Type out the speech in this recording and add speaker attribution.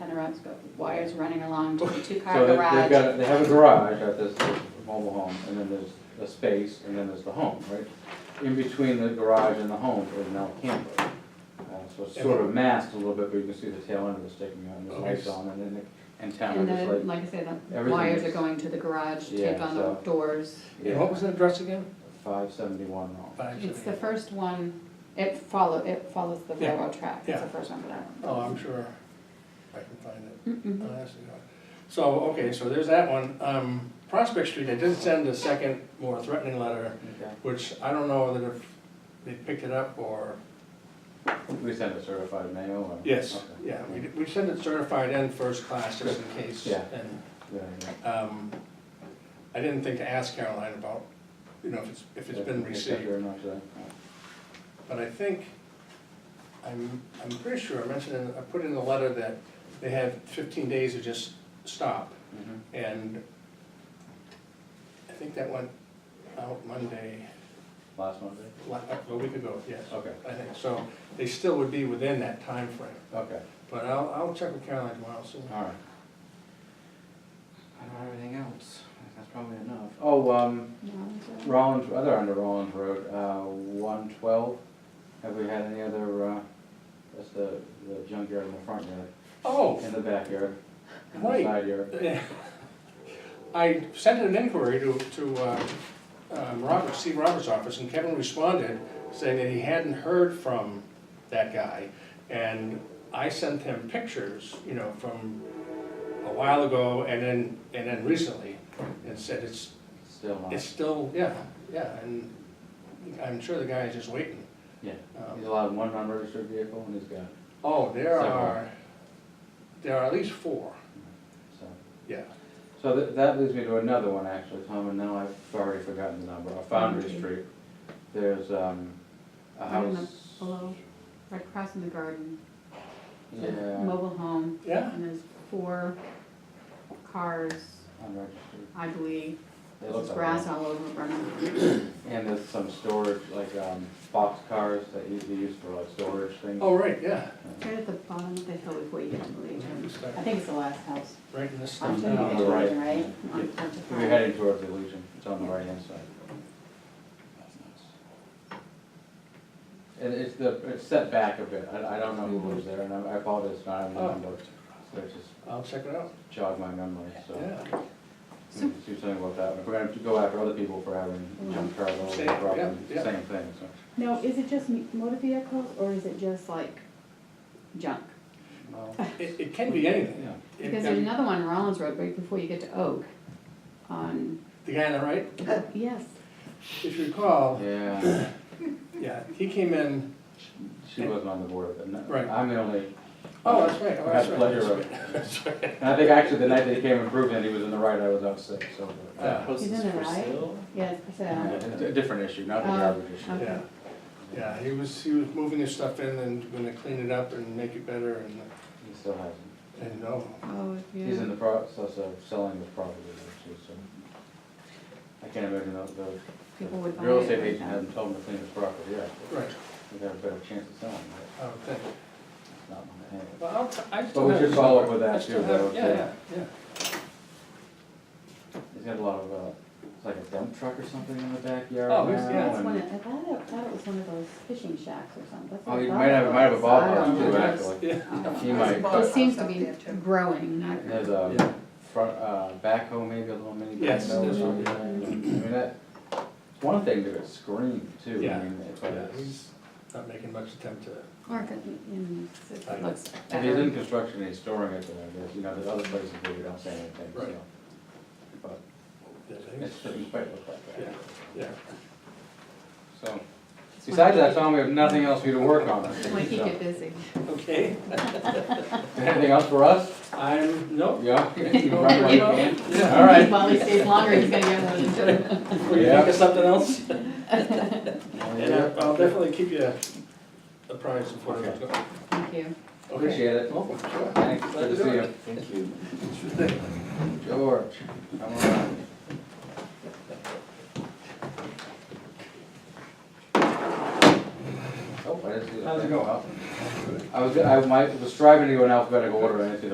Speaker 1: one's got wires running along to the
Speaker 2: So
Speaker 1: two-car
Speaker 2: they- they've
Speaker 1: garage.
Speaker 2: got, they have a garage at this mobile home, and then there's a space, and then there's the home, right? In between the garage and the home is now a camper. Uh, So it's sort of masked a little bit, but you can see the tail end of it sticking out, and there's lights on, and then the antenna
Speaker 1: And
Speaker 2: is
Speaker 1: the,
Speaker 2: like.
Speaker 1: like I said, the
Speaker 2: everything
Speaker 1: wires are
Speaker 2: is-
Speaker 1: going to the garage,
Speaker 2: Yeah,
Speaker 1: taped on the
Speaker 2: so-
Speaker 1: doors.
Speaker 3: And what was the address again?
Speaker 2: Five seventy-one wrong.
Speaker 1: It's the first one, it follow, it follows the
Speaker 3: Yeah,
Speaker 1: railroad track, it's
Speaker 3: yeah.
Speaker 1: the first one that I
Speaker 3: Oh,
Speaker 1: remember.
Speaker 3: I'm sure I can find it.
Speaker 1: Mm-mm.
Speaker 3: Oh, that's the one. So, okay, so there's that one. Um, Prospect Street, they did send a second, more threatening letter,
Speaker 2: Okay.
Speaker 3: which I don't know that if they picked it up or,
Speaker 2: We sent a certified mail or?
Speaker 3: yes,
Speaker 2: Okay.
Speaker 3: yeah, we, we sent it certified and first class just in case.
Speaker 2: Yeah.
Speaker 3: And,
Speaker 2: Yeah, yeah.
Speaker 3: um, I didn't think to ask Caroline about, you know, if it's, if it's been
Speaker 2: Yeah, Thank you
Speaker 3: received,
Speaker 2: very much, then.
Speaker 3: but I think, I'm, I'm pretty sure, I mentioned, in- I put in the letter that they have fifteen days to just stop.
Speaker 2: Mhm.
Speaker 3: And I think that went out Monday,
Speaker 2: Last Monday?
Speaker 3: la- a week ago, yes,
Speaker 2: Okay,
Speaker 3: I think. So they still would be within that time frame.
Speaker 2: okay,
Speaker 3: But I'll, I'll check with Caroline tomorrow, so.
Speaker 2: all right. I don't have anything else, that's probably enough. Oh, um,
Speaker 1: No, it's, uh,
Speaker 2: Rollins, other under Rollins Road, uh, one twelve, have we had any other, uh, that's the, the junkyard in the front yard,
Speaker 3: Oh,
Speaker 2: in the backyard, in the
Speaker 3: Right.
Speaker 2: side yard.
Speaker 3: eh, I sent an inquiry to, to uh, um, Robert, Steve Roberts' office, and Kevin responded saying that he hadn't heard from that guy. And I sent him pictures, you know, from a while ago and then, and then recently, and said it's,
Speaker 2: Still not,
Speaker 3: It's still, yeah, yeah, and I'm sure the guy is just waiting.
Speaker 2: yeah. He's
Speaker 3: Um,
Speaker 2: allowed one unregistered vehicle and he's got,
Speaker 3: Oh, there
Speaker 2: Several.
Speaker 3: are, there are at least four,
Speaker 2: so.
Speaker 3: yeah.
Speaker 2: So that, that leads me to another one actually, Tom, and now I've already forgotten the number, Uh, Foundry
Speaker 1: Foundry.
Speaker 2: Street. There's, um, a
Speaker 1: Right in the-
Speaker 2: house.
Speaker 1: Below, right across in the garden,
Speaker 2: Yeah,
Speaker 1: the mobile home,
Speaker 3: Yeah,
Speaker 1: and there's four cars,
Speaker 2: unregistered.
Speaker 1: I believe.
Speaker 2: They look
Speaker 1: There's
Speaker 2: like
Speaker 1: grass
Speaker 2: that.
Speaker 1: all over Burnham.
Speaker 2: And there's some storage, like, um, box cars that you they use for like storage things.
Speaker 3: oh, right, yeah,
Speaker 1: Right at the bottom of the hill before you get to the Legion.
Speaker 3: Mm-hmm.
Speaker 1: I think it's the last house.
Speaker 3: right in this
Speaker 1: I'm
Speaker 3: stuff
Speaker 1: taking
Speaker 2: On
Speaker 3: now.
Speaker 2: the
Speaker 1: the
Speaker 2: right.
Speaker 1: Legion, right? On-
Speaker 2: Yeah.
Speaker 1: on the
Speaker 2: We're
Speaker 1: front.
Speaker 2: heading towards the Legion, it's on the right hand side. And it's the, it's set back a bit, I, I don't know who lives there, and I I apologize, it's not in the
Speaker 3: Oh.
Speaker 2: number, but it just
Speaker 3: I'll check it out,
Speaker 2: jogged my memory, so.
Speaker 3: yeah.
Speaker 2: we can Do something about that, if we're gonna go after other people for having junk cars all over
Speaker 3: Mm-hmm. Same,
Speaker 2: the problem,
Speaker 3: yeah, yeah.
Speaker 2: same thing, so.
Speaker 1: Now, is it just m- motor vehicles or is it just like junk?
Speaker 2: well,
Speaker 3: It, it can be anything.
Speaker 2: yeah.
Speaker 3: It-
Speaker 1: Because there's
Speaker 3: and
Speaker 1: another one on Rollins Road right before you get to Oak on,
Speaker 3: The guy on the right,
Speaker 1: yes,
Speaker 3: if you recall,
Speaker 2: Yeah,
Speaker 3: yeah, he came in,
Speaker 2: she wasn't on the board, but no,
Speaker 3: Right.
Speaker 2: I'm the only.
Speaker 3: oh, that's right, oh,
Speaker 2: I
Speaker 3: that's
Speaker 2: had
Speaker 3: right.
Speaker 2: pleasure of-
Speaker 3: that's right.
Speaker 2: And I think actually the night they came and proved that he was in the right, I was out sick, so.
Speaker 3: Uh,
Speaker 2: but,
Speaker 3: Yeah.
Speaker 4: House
Speaker 1: Isn't
Speaker 4: is
Speaker 1: it
Speaker 4: for
Speaker 1: right?
Speaker 4: sale?
Speaker 1: yes,
Speaker 2: Yeah,
Speaker 1: so,
Speaker 2: it's A different issue, not the
Speaker 1: Oh,
Speaker 2: garbage issue.
Speaker 1: okay.
Speaker 3: Yeah, yeah, he was, he was moving his stuff in and gonna clean it up and make it better and,
Speaker 2: He still hasn't.
Speaker 3: and no.
Speaker 1: oh,
Speaker 2: He's in
Speaker 1: yeah.
Speaker 2: the process of selling his property there too, so. I can't imagine that the
Speaker 1: People would buy
Speaker 2: real estate
Speaker 1: it.
Speaker 2: agent hasn't told him to clean his property yet. but
Speaker 3: Right,
Speaker 2: We got a better chance of selling it,
Speaker 3: I would think.
Speaker 2: it's not in my hand.
Speaker 3: Well, I'll, t- I
Speaker 2: But
Speaker 3: still
Speaker 2: we
Speaker 3: have.
Speaker 2: should
Speaker 3: his
Speaker 2: follow up
Speaker 3: number.
Speaker 2: with that
Speaker 3: I still
Speaker 2: too,
Speaker 3: have-
Speaker 2: though,
Speaker 3: Yeah,
Speaker 2: yeah.
Speaker 3: yeah, yeah.
Speaker 2: He's got a lot of, uh, it's like a dump truck or something in the backyard
Speaker 3: Oh, he's-
Speaker 2: now,
Speaker 3: yeah,
Speaker 1: That's
Speaker 2: and-
Speaker 1: one, of- I thought it, I thought it was one of those fishing shacks or something. That's
Speaker 2: Oh,
Speaker 1: what I
Speaker 2: you
Speaker 1: thought
Speaker 2: might
Speaker 1: it
Speaker 2: have, might have a
Speaker 1: was. I
Speaker 2: ballpark
Speaker 1: don't
Speaker 2: too,
Speaker 1: know.
Speaker 2: actually.
Speaker 3: Yeah.
Speaker 1: I don't
Speaker 2: He
Speaker 1: know.
Speaker 2: might,
Speaker 1: It
Speaker 2: but
Speaker 1: seems to be growing, not,
Speaker 2: there's a front, uh, backhoe maybe, a little mini backhoe.
Speaker 3: Yes,
Speaker 2: or
Speaker 3: there's one.
Speaker 2: something. I mean, that, it's one thing to scream too,
Speaker 3: Yeah.
Speaker 2: I mean, it's like,
Speaker 3: Yeah,
Speaker 2: it's-
Speaker 3: he's not making much attempt to,
Speaker 1: or if it, in- if
Speaker 3: I
Speaker 1: it
Speaker 3: know.
Speaker 1: looks
Speaker 2: if he's in
Speaker 1: better.
Speaker 2: construction, he's storing it there, there's, you know, there's other places where you don't say anything, so.
Speaker 3: Right.
Speaker 2: But
Speaker 3: yeah,
Speaker 2: it
Speaker 3: things.
Speaker 2: doesn't quite look like that.
Speaker 3: Yeah. yeah.
Speaker 2: So, besides that, Tom, we have nothing else for you to work on. I think,
Speaker 1: Like he
Speaker 2: so.
Speaker 1: get busy.
Speaker 3: Okay,
Speaker 2: Anything else for us?
Speaker 3: I'm, no.
Speaker 2: Yeah. You
Speaker 3: Go
Speaker 2: run
Speaker 3: right
Speaker 2: right
Speaker 3: on.
Speaker 2: in.
Speaker 3: Yeah.
Speaker 2: All right.
Speaker 1: While he stays longer, he's gonna get one too.
Speaker 3: Will you think of something else? And
Speaker 2: Yeah.
Speaker 3: I- I'll definitely keep you apprised of what I'm doing.
Speaker 1: Thank you.
Speaker 2: Appreciate it.
Speaker 3: Welcome, sure.
Speaker 2: Thanks, good to see you.
Speaker 4: Thank you.
Speaker 2: George, come on. Oh, I didn't see that.
Speaker 3: How's it going?
Speaker 2: I was, I, my, was striving to go in alphabetical order, and I didn't see the